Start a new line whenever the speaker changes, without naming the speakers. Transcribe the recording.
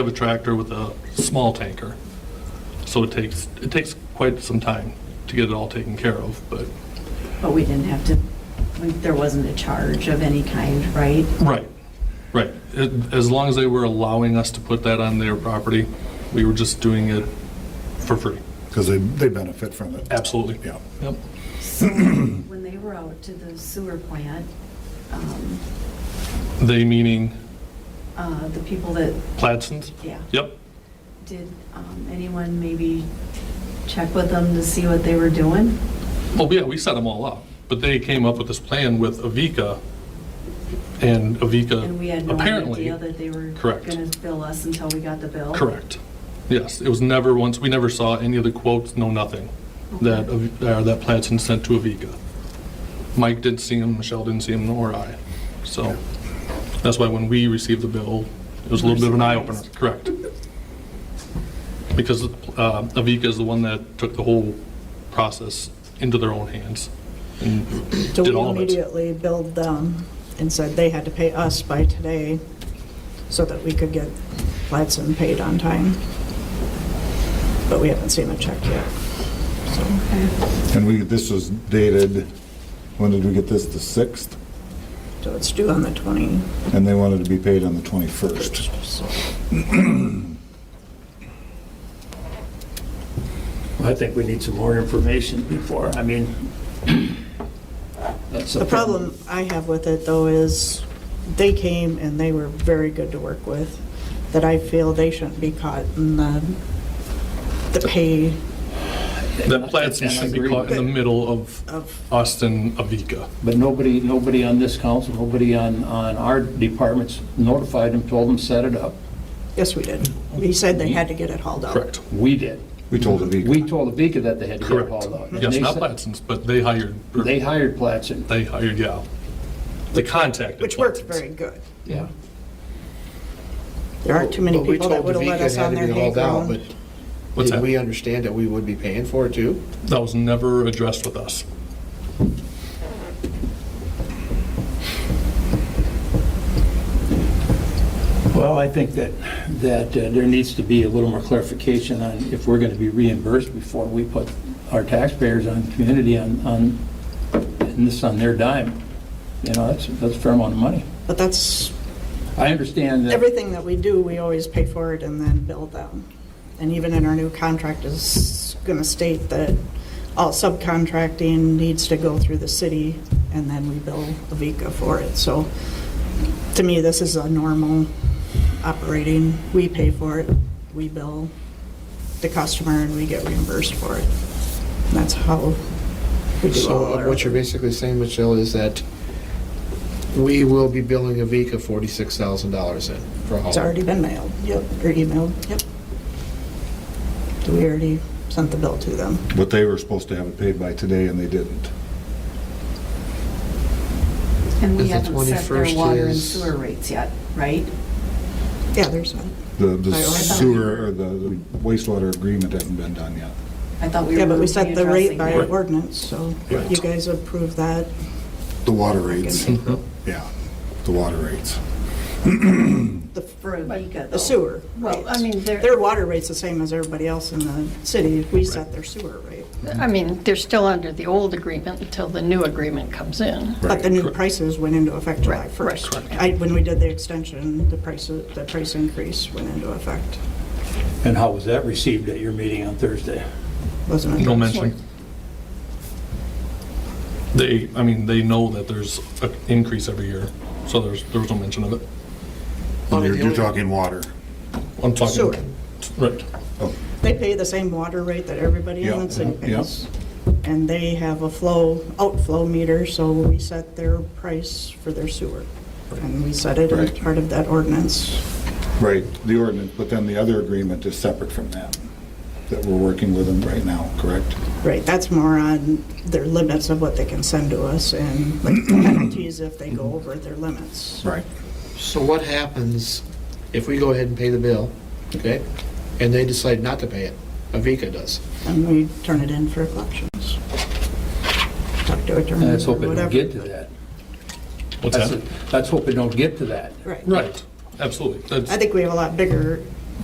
of a tractor with a small tanker. So it takes, it takes quite some time to get it all taken care of, but,
But we didn't have to, we- there wasn't a charge of any kind, right?
right, right. It- As long as they were allowing us to put that on their property, we were just doing it for free.
Because they, they benefit from it.
Absolutely.
Yeah.
Yep.
So when they were out to the sewer plant, um,
They meaning
uh, the people that,
Pladsons?
yeah,
Yep.
did um, anyone maybe check with them to see what they were doing?
Well, yeah, we set them all up, but they came up with this plan with Avica, and Avica
And we had no
Uh, apparently...
idea that they were
Correct.
going to bill us until we got the bill?
Correct. Yes, it was never once, we never saw any of the quotes, no nothing, that, uh, that Platson sent to Aviga. Mike didn't see him, Michelle didn't see him, nor I. So that's why when we received the bill, it was a little bit of an eye-opener, correct? Because uh, Aviga is the one that took the whole process into their own hands and
So
did
we
all of it.
immediately billed them and said they had to pay us by today so that we could get Ladson paid on time. But we haven't seen a check yet.
And we, this was dated, when did we get this, the 6th?
So it's due on the 21st.
And they wanted to be paid on the 21st.
so-
I think we need some more information before, I mean. that's
The problem I have with it though is they came and they were very good to work with, that I feel they shouldn't be caught in the, the pay
That Platson should be caught in the middle of
of,
Austin Aviga.
But nobody, nobody on this council, nobody on, on our departments notified them, told them, set it up.
yes, we did. We said they had to get it hauled out.
Correct,
We did.
We told
We
Avica.
told Avica that they had to get
correct.
it hauled out. and
Yes,
they
not
said-
Platson's, but they hired, or
They hired Platson.
They hired, yeah. They contacted.
Which worked very good.
Yeah.
There aren't too many
But we
people that
told
would have let
Davika it
us
had
on
to
their
be
hay
hauled out,
ground.
What's
But
that?
did we understand that we would be paying for it too?
That was never addressed with us.
Well, I think that, that uh, there needs to be a little more clarification on if we're going to be reimbursed before we put our taxpayers on, community on, on, and this on their dime. You know, that's, that's a fair amount of money.
But that's,
I understand that,
everything that we do, we always pay for it and then bill them. And even in our new contract is gonna state that all subcontracting needs to go through the city and then we bill Avica for it. So to me, this is a normal operating. We pay for it, we bill the customer and we get reimbursed for it. And That's how we do all
So uh,
our.
what you're basically saying, Michelle, is that we will be billing Avica forty-six thousand dollars in for haul.
It's already been mailed, yep, or emailed, yep. So we already sent the bill to them.
But they were supposed to have it paid by today and they didn't.
And we
Is the
haven't set their
21st
water and
is-
sewer rates yet, right?
Yeah, there's one.
The the
I- I thought-
sewer, or the the wastewater agreement hasn't been done yet.
I thought we were.
Yeah, but we set the rate
readdressing
by
that.
ordinance, so
Right.
you guys approve that.
The water rates,
The
yeah, the water rates.
For Avica,
the
though.
sewer
Well, I
rates.
mean, they're-
Their water rate's the same as everybody else in the city, we set their sewer rate.
I mean, they're still under the old agreement until the new agreement comes in.
But the new prices went into effect July
Right,
1st. I, when we did the extension, the prices, the price increase went into effect,
and how was that received at your meeting on Thursday?
wasn't it?
No mention. They, I mean, they know that there's an increase every year, so there's, there was no mention of it.
Well,
You're
the
you're
only-
talking water.
I'm talking.
Sewer.
Right.
They pay the same water rate that everybody in
Yeah,
the city
yeah.
pays. And they have a flow, outflow meter, so we set their price for their sewer. And we set it as
Right.
part of that ordinance.
Right, the ordinance, but then the other agreement is separate from that, that we're working with them right now, correct?
Right, that's more on their limits of what they can send to us and like penalties if they go over their limits.
Right.
So what happens if we go ahead and pay the bill, okay, and they decide not to pay it? Avica does.
And we turn it in for collections. Talk to attorney
And let's
or
hope it
whatever.
don't get to that.
What's
That's-
that?
Let's hope it don't get to that.
Right.
Right, absolutely.
I
That's,
think we have a lot bigger